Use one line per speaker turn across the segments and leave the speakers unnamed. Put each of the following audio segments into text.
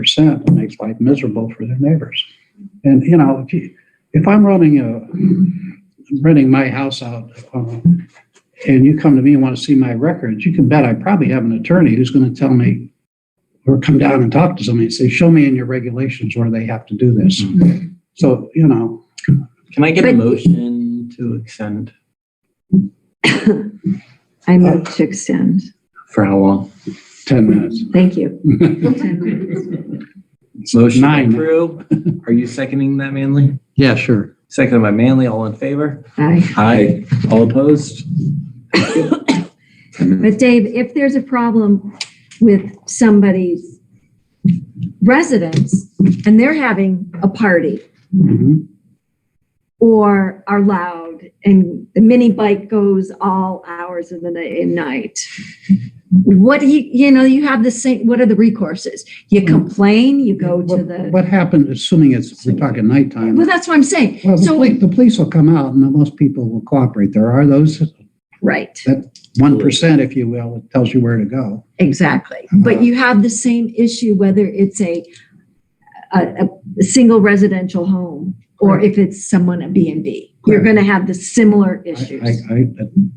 percent and makes life miserable for their neighbors. And, you know, if you, if I'm running a, renting my house out, uh, and you come to me and want to see my records, you can bet I probably have an attorney who's going to tell me, or come down and talk to somebody and say, show me in your regulations where they have to do this. So, you know,
Can I get a
But-
motion to extend?
I move to extend.
For how long?
10 minutes.
Thank you.
Motion
nine.
to approve. Are you seconding that, Manley?
Yeah, sure.
Seconded by Manley. All in favor?
Aye.
Aye. All opposed?
But Dave, if there's a problem with somebody's residence and they're having a party
Mhm.
or are loud and the mini bike goes all hours of the ni- and night, what do you, you know, you have the same, what are the recourses? You complain, you go to
What-
the,
What happened, assuming it's, we're talking nighttime.
well, that's what I'm saying.
Well, the
So,
police, the police will come out and most people will cooperate. There are those
right.
one percent, if you will, that tells you where to go.
Exactly.
Mm-hmm.
But you have the same issue whether it's a, a, a single residential home or if it's someone at B and B. You're going to have the similar
I, I,
issues.
I-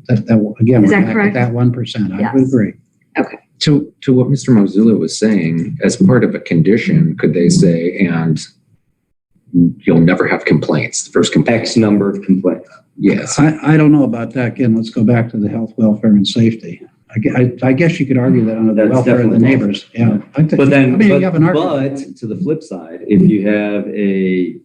that, that, again,
Is
we're
that
back at
correct?
that one percent. I would
Yes.
agree.
To, to what Mr. Mozilla was saying, as part of a condition, could they say, and you'll never have complaints, the first complaint?
X number of complaints.
Yes.
I, I don't know about that. Again, let's go back to the health, welfare and safety. I, gue- I, I guess you could argue that under the
That's
welfare of the
definitely-
neighbors. Yeah. I think-
But
I
then,
mean, you
but,
have an argument.
but to the flip side, if you have a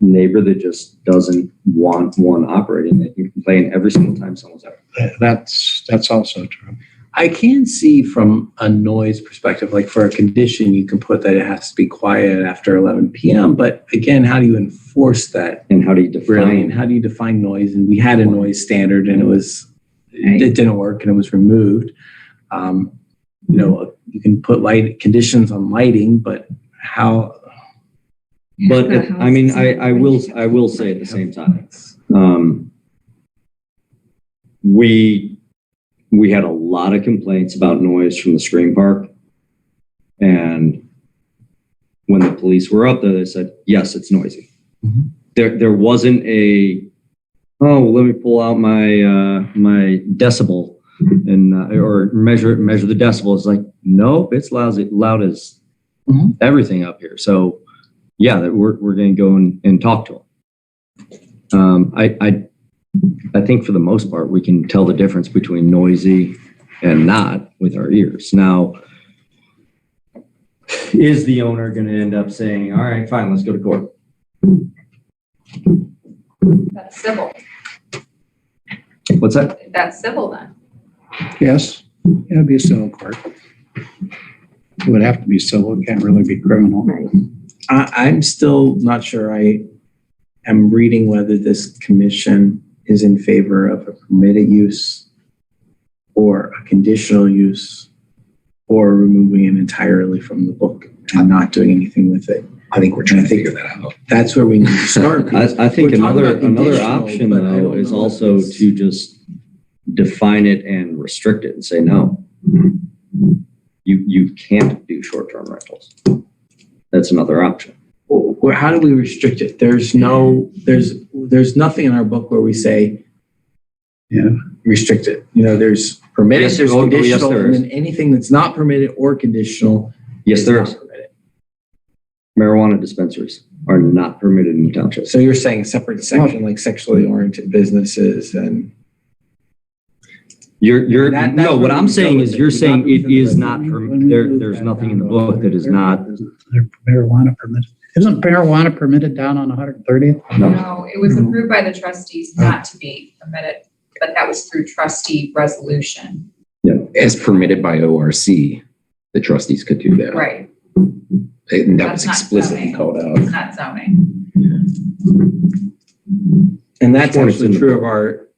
neighbor that just doesn't want one operating, that you complain every single time someone's out.
That's, that's also true.
I can see from a noise perspective, like for a condition, you can put that it has to be quiet after 11 PM. But again, how do you enforce that
And how do you
really? And
define?
how do you define noise? And we had a noise standard and it was, it didn't work and it was removed. Um, You know, you can put light, conditions on lighting, but how,
But at- I mean, I, I will, I will say at the same time, um, we, we had a lot of complaints about noise from the screen park. And when the police were up there, they said, yes, it's noisy.
Mhm.
There, there wasn't a, oh, well, let me pull out my, uh, my decibel and, uh, or measure, measure the decibel. It's like, nope, it's lousy, loud as
Mhm.
everything up here. So yeah, that we're, we're going to go and, and talk to them. Um, I, I, I think for the most part, we can tell the difference between noisy and not with our ears. Now, is the owner going to end up saying, all right, fine, let's go to court?
That's civil.
What's that?
That's civil then.
Yes, it'd be a civil court. It would have to be civil. It can't really be criminal.
Right.
I, I'm still not sure I am reading whether this commission is in favor of a permitted use or a conditional use or removing it entirely from the book and not doing anything with it.
I think we're
trying to figure
that out.
That's where we need to start.
I, I think
We're talking
another,
about
another
conditional,
option
but I
though
don't
is
know
also
if it's-
to just define it and restrict it and say, no. You, you can't do short-term rentals. That's another option.
Well, how do we restrict it? There's no, there's, there's nothing in our book where we say, you know, restrict it. You know, there's permitted,
Yes,
there's
oh, oh, yes,
conditional,
there
and
is.
then anything that's not permitted or conditional.
Yes, there
not
is.
permitted.
Marijuana dispensaries are not permitted in townships.
So you're saying separate section, like sexually oriented businesses and.
You're, you're,
That- that's
no,
where
what
we
I'm
go
saying
with
is
it.
you're
We're
saying it
within the
is
budget.
not,
When
perm-
we
there,
move
there's
that
nothing
down
in the
to
book that is not,
130th, isn't there Marijuana permitted. Isn't marijuana permitted down on 130th?
no.
No, it was approved by the trustees not to be permitted, but that was through trustee resolution.
As permitted by ORC, the trustees could do that.
Right,
And that was
That's not
explicitly
zoning.
called out.
it's not zoning.
And that's
Sure, it's
actually
in the
true of our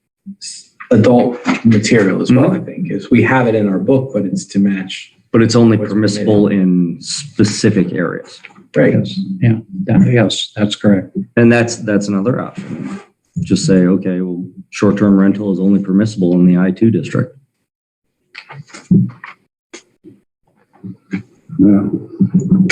s- adult material as
Mm-hmm.
well, I think, is we have it in our book, but it's to match.
But it's only
What's
permissible in specific areas.
Yes, yeah, that- yes, that's correct.
And that's, that's another option. Just say, okay, well, short-term rental is only permissible in the I two district.
Yeah.